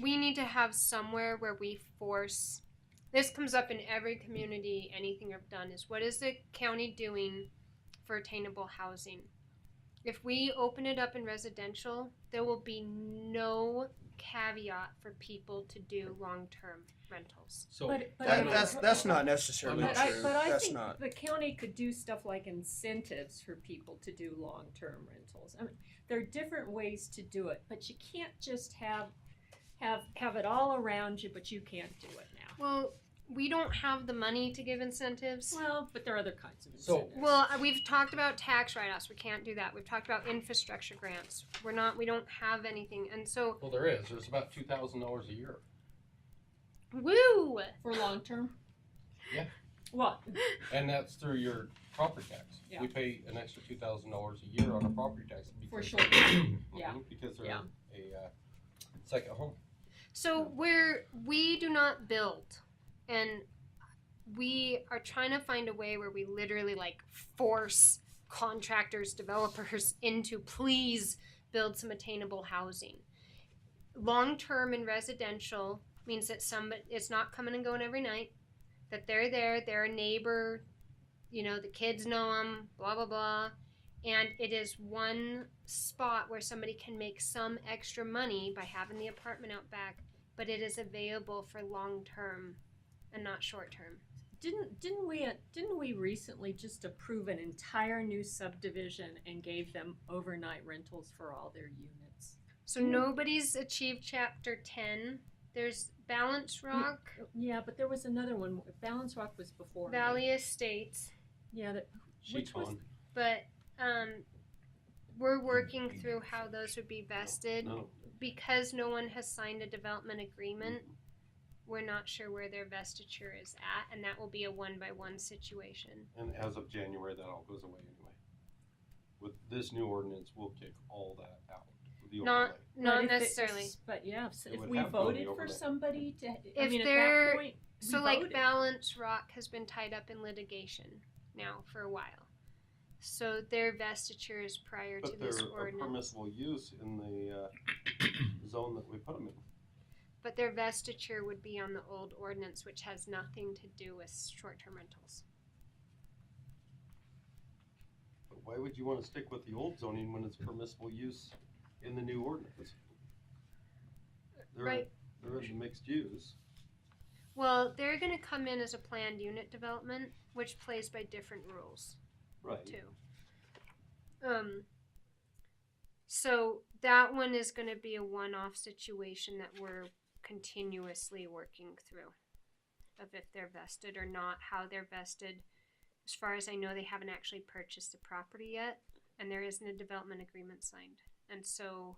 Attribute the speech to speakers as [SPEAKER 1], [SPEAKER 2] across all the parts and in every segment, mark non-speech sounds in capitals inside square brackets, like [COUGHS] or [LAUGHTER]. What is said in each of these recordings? [SPEAKER 1] we need to have somewhere where we force. This comes up in every community. Anything I've done is what is the county doing for attainable housing? If we open it up in residential, there will be no caveat for people to do long-term rentals.
[SPEAKER 2] So
[SPEAKER 3] But- but
[SPEAKER 2] I
[SPEAKER 3] I-
[SPEAKER 4] That,
[SPEAKER 2] don't-
[SPEAKER 4] that's that's not necessarily
[SPEAKER 2] I'm
[SPEAKER 3] But
[SPEAKER 2] not
[SPEAKER 3] I,
[SPEAKER 4] true.
[SPEAKER 3] but I
[SPEAKER 4] that's
[SPEAKER 3] think
[SPEAKER 4] not.
[SPEAKER 3] the county could do stuff like incentives for people to do long-term rentals. I mean, there are different ways to do it, but you can't just have, have, have it all around you, but you can't do it now.
[SPEAKER 1] Well, we don't have the money to give incentives.
[SPEAKER 3] Well, but there are other kinds of
[SPEAKER 2] So-
[SPEAKER 3] incentives.
[SPEAKER 1] Well, uh, we've talked about tax write-offs. We can't do that. We've talked about infrastructure grants. We're not. We don't have anything, and so
[SPEAKER 2] well, there is. There's about two thousand dollars a year.
[SPEAKER 1] woo.
[SPEAKER 3] For long-term?
[SPEAKER 2] Yeah.
[SPEAKER 3] What?
[SPEAKER 2] And that's through your property tax.
[SPEAKER 3] Yeah.
[SPEAKER 2] We pay an extra two thousand dollars a year on our property tax.
[SPEAKER 3] For
[SPEAKER 2] because-
[SPEAKER 3] sure.
[SPEAKER 2] Mhm,
[SPEAKER 3] [COUGHS] Yeah.
[SPEAKER 2] Because they're
[SPEAKER 3] Yeah.
[SPEAKER 2] a uh, second home.
[SPEAKER 1] So we're we do not build, and we are trying to find a way where we literally like force contractors, developers [LAUGHS] into please build some attainable housing. Long term and residential means that some it's not coming and going every night. That they're there, they're a neighbor, you know, the kids know them, blah blah blah, and it is one spot where somebody can make some extra money by having the apartment out back, but it is available for long term and not short term.
[SPEAKER 3] Didn't, didn't we, uh, didn't we recently just approve an entire new subdivision and gave them overnight rentals for all their units?
[SPEAKER 1] So
[SPEAKER 3] Hmm.
[SPEAKER 1] nobody's achieved chapter 10. There's Balance
[SPEAKER 3] Hmm.
[SPEAKER 1] Rock,
[SPEAKER 3] Yeah, but there was another one. Balance Rock was before. me.
[SPEAKER 1] Valley Estates,
[SPEAKER 3] Yeah, that,
[SPEAKER 2] Sheet
[SPEAKER 3] was-
[SPEAKER 2] on.
[SPEAKER 1] but um, we're working through how those would be vested.
[SPEAKER 2] No.
[SPEAKER 1] Because no one has signed a development agreement, we're not sure where their vestiture is at, and that will be a one by one situation.
[SPEAKER 2] And as of January, that all goes away anyway. With this new ordinance, we'll kick all that out. The
[SPEAKER 1] Not-
[SPEAKER 2] overlay.
[SPEAKER 1] Not
[SPEAKER 3] but if it-
[SPEAKER 1] necessarily.
[SPEAKER 3] But yeah, if,
[SPEAKER 2] It
[SPEAKER 3] if
[SPEAKER 2] would
[SPEAKER 3] we
[SPEAKER 2] have to go
[SPEAKER 3] voted
[SPEAKER 2] the
[SPEAKER 3] for
[SPEAKER 2] overlay.
[SPEAKER 3] somebody to, I
[SPEAKER 1] If
[SPEAKER 3] mean, at
[SPEAKER 1] they're-
[SPEAKER 3] that point, we
[SPEAKER 1] So, like,
[SPEAKER 3] voted.
[SPEAKER 1] Balance Rock has been tied up in litigation now for a while. So, their vestiture is prior to
[SPEAKER 2] But they're
[SPEAKER 1] this
[SPEAKER 2] a
[SPEAKER 1] ordinance.
[SPEAKER 2] permissible use in the uh, [COUGHS] zone that we put them in.
[SPEAKER 1] but their vestiture would be on the old ordinance, which has nothing to do with short term rentals.
[SPEAKER 2] But why would you want to stick with the old zoning when it's permissible use in the new ordinance? They're-
[SPEAKER 1] Right.
[SPEAKER 2] They're in the mixed use.
[SPEAKER 1] Well, they're going to come in as a planned unit development, which plays by different rules.
[SPEAKER 2] Right.
[SPEAKER 1] too. Um, so that one is going to be a one-off situation that we're continuously working through, of if they're vested or not, how they're vested. As far as I know, they haven't actually purchased the property yet, and there isn't a development agreement signed, and so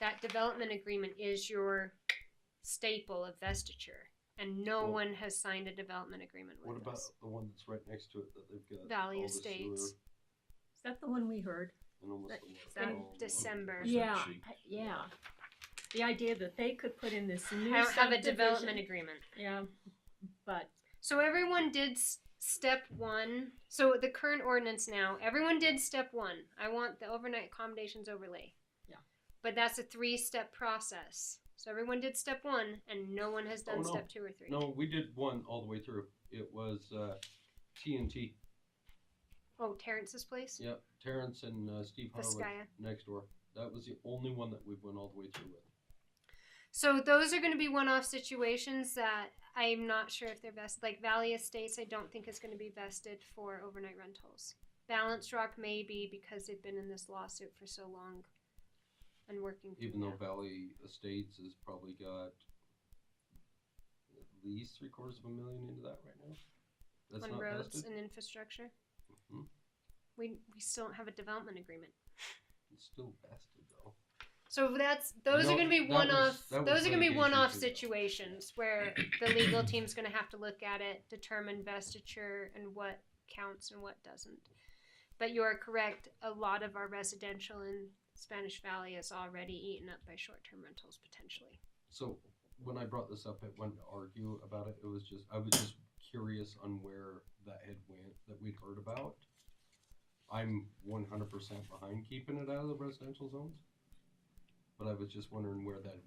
[SPEAKER 1] that development agreement is your staple of vestiture, and no
[SPEAKER 2] Well-
[SPEAKER 1] one has signed a development agreement with
[SPEAKER 2] What about
[SPEAKER 1] us.
[SPEAKER 2] the one that's right next to it that they've got?
[SPEAKER 1] Valley
[SPEAKER 2] all the sewer
[SPEAKER 1] Estates.
[SPEAKER 3] Is that the one we heard?
[SPEAKER 2] and almost
[SPEAKER 3] That-
[SPEAKER 2] the water.
[SPEAKER 1] that
[SPEAKER 2] Oh, wow.
[SPEAKER 1] December.
[SPEAKER 5] Is that
[SPEAKER 3] Yeah,
[SPEAKER 5] cheap?
[SPEAKER 3] I- yeah. The idea that they could put in this new
[SPEAKER 1] I don't have a
[SPEAKER 3] subdivision-
[SPEAKER 1] development agreement.
[SPEAKER 3] Yeah, but
[SPEAKER 1] So everyone did s- step one. So the current ordinance now, everyone did step one. I want the overnight accommodations overlay.
[SPEAKER 3] Yeah.
[SPEAKER 1] But that's a three step process. So everyone did step one, and no one has done
[SPEAKER 2] Oh, no.
[SPEAKER 1] step two or three.
[SPEAKER 2] No, we did one all the way through. It was uh, TNT.
[SPEAKER 1] Oh, Terrence's place?
[SPEAKER 2] Yep, Terrence and uh, Steve Harwood
[SPEAKER 1] Vizcaya.
[SPEAKER 2] next door. That was the only one that we went all the way through with.
[SPEAKER 1] So those are going to be one off situations that I'm not sure if they're vested. Like Valley Estates, I don't think is going to be vested for overnight rentals. Balance Rock may be because they've been in this lawsuit for so long and working through
[SPEAKER 2] Even
[SPEAKER 1] that.
[SPEAKER 2] though Valley Estates has probably got at least three quarters of a million into that right now. That's
[SPEAKER 1] on
[SPEAKER 2] not
[SPEAKER 1] roads
[SPEAKER 2] vested.
[SPEAKER 1] and infrastructure.
[SPEAKER 2] Mhm.
[SPEAKER 1] We we still don't have a development agreement.
[SPEAKER 2] It's still vested though.
[SPEAKER 1] So that's those
[SPEAKER 2] No,
[SPEAKER 1] are going to be
[SPEAKER 2] that
[SPEAKER 1] one
[SPEAKER 2] was-
[SPEAKER 1] off.
[SPEAKER 2] that was
[SPEAKER 1] Those are going to be
[SPEAKER 2] litigation
[SPEAKER 1] one off
[SPEAKER 2] too.
[SPEAKER 1] situations where the legal team's going to have to look at it, determine vestiture and what counts and what doesn't. But you are correct. A lot of our residential in Spanish Valley is already eaten up by short-term rentals potentially.
[SPEAKER 2] So when I brought this up, it wasn't to argue about it. It was just I was just curious on where that had went that we'd heard about. I'm 100% behind keeping it out of the residential zones, but I was just wondering where that